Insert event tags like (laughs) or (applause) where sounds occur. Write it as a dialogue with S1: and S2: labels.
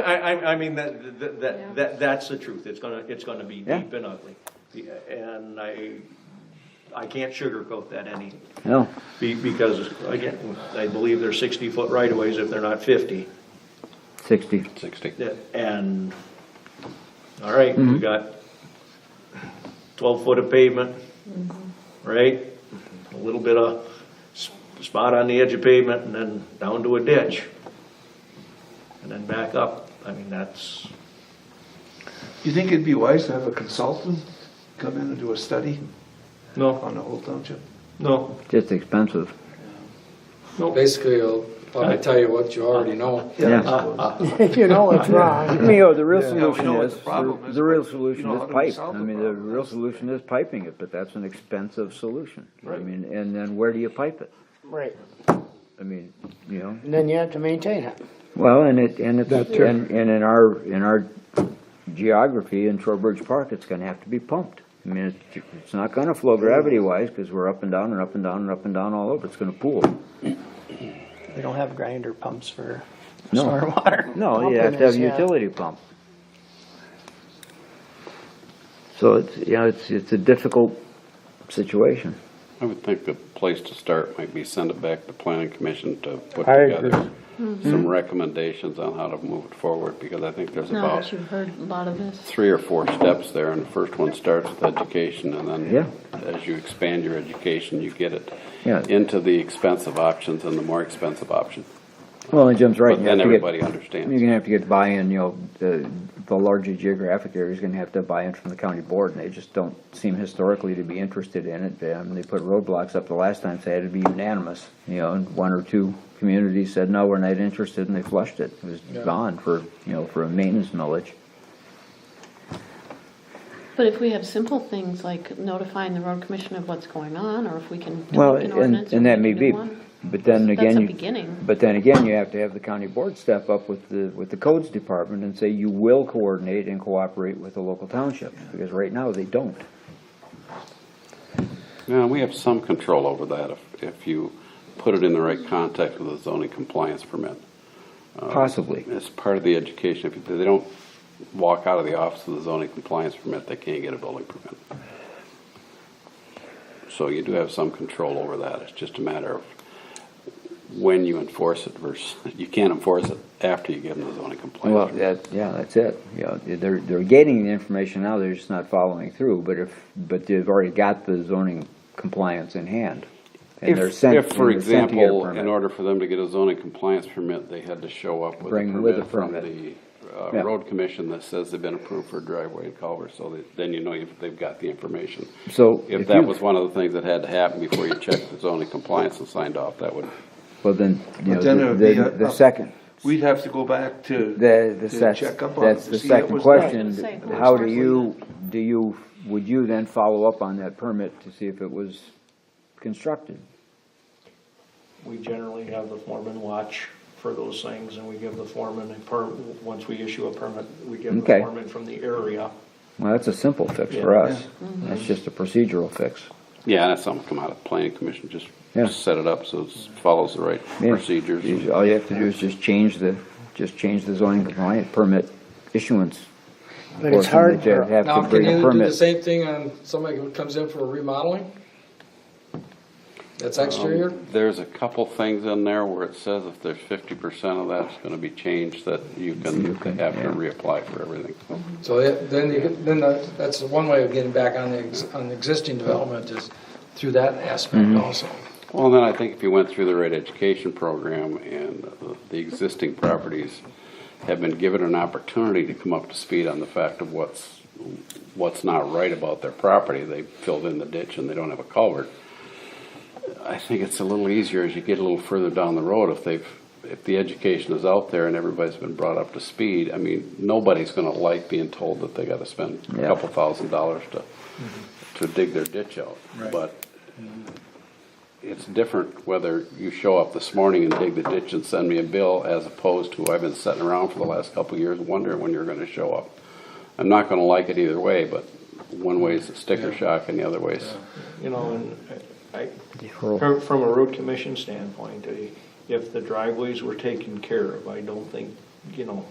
S1: I, I, I mean, that, that-
S2: Yeah.
S1: that, that, that's the truth, it's gonna, it's gonna be
S3: Yeah.
S1: deep and ugly. Yeah, And I, I can't sugarcoat that any,
S3: No,
S1: be- because, again, I believe they're sixty-foot right-of-ways if they're not fifty.
S3: sixty.
S4: Sixty.
S1: That- And, all right, we got twelve foot of pavement, right? A little bit of s- spot on the edge of pavement and then down to a ditch. And then back up, I mean, that's,
S5: You think it'd be wise to have a consultant come in and do a study
S1: no,
S5: on the whole township?
S1: no,
S3: Just expensive.
S1: no.
S6: Basically, I'll probably tell you what you already know.
S3: Yeah.
S5: I suppose.
S7: If (laughs) you know it's wrong.
S3: You know, the real
S5: Yeah, we know
S3: solution
S5: what
S3: is,
S5: the problem
S3: the
S5: is,
S3: the real
S5: but you
S3: solution
S5: know
S3: is
S5: how do we
S3: pipe.
S5: solve
S3: I
S5: the
S3: mean, the
S5: problem?
S3: real solution is piping it, but that's an expensive solution. I
S1: Right.
S3: mean, and then where do you pipe it?
S7: Right.
S3: I mean, you know,
S7: And then you have to maintain it.
S3: well, and it, and it's,
S7: That too.
S3: and, and in our, in our geography in Trowbridge Park, it's gonna have to be pumped. I mean, it's, it's not gonna flow gravity-wise, because we're up and down and up and down and up and down all over. It's gonna pool.
S8: We don't have grinder pumps for
S3: No.
S8: stormwater.
S3: No, you
S7: Pumping
S3: have to have
S7: is,
S3: a
S7: yeah.
S3: utility pump. So it's, you know, it's, it's a difficult situation.
S4: I would think the place to start might be send it back to planning commission to put
S7: I
S4: together
S3: Mm-hmm.
S4: some recommendations on how to move it forward, because I think there's
S2: No, but
S4: about
S2: you've heard a lot of this.
S4: three or four steps there, and the first one starts with education, and
S3: Yeah.
S4: then as you expand your education, you get it
S3: Yeah.
S4: into the expensive options and the more expensive options.
S3: Well, and Jim's right.
S4: But
S3: you have
S4: then
S3: to get-
S4: everybody
S3: You're
S4: understands.
S3: gonna have to get buy-in, you know, the, the larger geographic area's gonna have to have buy-in from the county board, and they just don't seem historically to be interested in it. Um, they put roadblocks up the last time, so it had to be unanimous, you know, and one or two communities said, no, we're not interested, and they flushed it. It was gone for, you know, for a maintenance millage.
S2: But if we have simple things like notifying the road commission of what's going on, or if we can do
S3: Well,
S2: an ordinance.
S3: and, and
S2: or
S3: that
S2: we
S3: may
S2: can do
S3: be,
S2: one.
S3: but then
S2: That's
S3: again,
S2: a
S3: you,
S2: beginning.
S3: but then again, you have to have the county board step up with the, with the codes department and say you will coordinate and cooperate with the local township, because right now they don't.
S4: Yeah, we have some control over that if, if you put it in the right context with the zoning compliance permit. Oh.
S3: Possibly,
S4: It's part of the education. If they don't walk out of the office with a zoning compliance permit, they can't get a building permit. So you do have some control over that. It's just a matter of when you enforce it versus, you can't enforce it after you give them the zoning
S3: well,
S4: compliance. permit.
S3: that, yeah, that's it, you know, they're, they're getting the information now, they're just not following through, but if, but they've already got the zoning compliance in hand. and they're
S4: If,
S3: sent-
S4: if, for
S3: and they're sent to get a
S4: example,
S3: permit.
S4: in order for them to get a zoning compliance permit, they had to show up with a
S3: Bring with a
S4: permit from
S3: permit.
S4: the uh,
S3: Yeah.
S4: road commission that says they've been approved for driveway and culvert, so that- then you know you've- they've got the information.
S3: So
S4: If
S3: if
S4: that
S3: you-
S4: was one of the things that had to happen before you checked the zoning compliance and signed off, that would,
S3: Well, then, you know,
S5: But then it would be
S3: the,
S5: up-
S3: the second,
S5: We'd have to go back to.
S3: The, the,
S5: to
S3: that's,
S5: check up on
S3: that's
S5: it to
S3: the
S5: see that
S3: second
S5: was done.
S3: question.
S2: Say, who
S3: How do
S2: was
S3: you, do you, would you then follow up on that permit to see if it was constructed?
S1: We generally have the foreman watch for those things, and we give the foreman a per, once we issue a permit, we give the
S3: Okay.
S1: foreman from the area.
S3: Well, that's a simple fix for
S1: Yeah.
S3: us. That's just a procedural fix.
S4: yeah, that's something come out of planning commission, just
S3: Yeah.
S4: set it up so it follows the right
S3: Yeah.
S4: procedures. Um,
S3: You- All you have to do is just change the, just change the zoning compliant permit issuance.
S7: But it's
S3: portion
S7: hard
S3: that you
S7: for-
S3: Have
S6: Now,
S3: to
S6: can
S3: bring a
S6: you do the
S3: permit.
S6: same thing on somebody who comes in for remodeling? That's
S3: Um,
S6: exterior?
S4: There's a couple things in there where it says if there's fifty percent of that's gonna be changed, that you
S3: You
S4: can
S3: can,
S4: have to
S3: yeah.
S4: reapply for everything.
S6: So it- then, you get- then the- that's one way of getting back on the, ex- on the existing development is through that aspect
S3: Mm-hmm.
S6: also.
S4: Well, then I think if you went through the right education program and the- the existing properties have been given an opportunity to come up to speed on the fact of what's, what's not right about their property, they filled in the ditch and they don't have a culvert. I think it's a little easier as you get a little further down the road if they've, if the education is out there and everybody's been brought up to speed. I mean, nobody's gonna like being told that they gotta spend a
S3: Yeah.
S4: couple thousand dollars to, to dig their ditch out. But it's different whether you show up this morning and dig the ditch and send me a bill as opposed to I've been sitting around for the last couple of years wondering when you're gonna show up. I'm not gonna like it either way, but one way is a sticker shock and the other way is
S1: You know, and I, from, from a road commission standpoint, I- if the driveways were taken care of, I don't think, you know,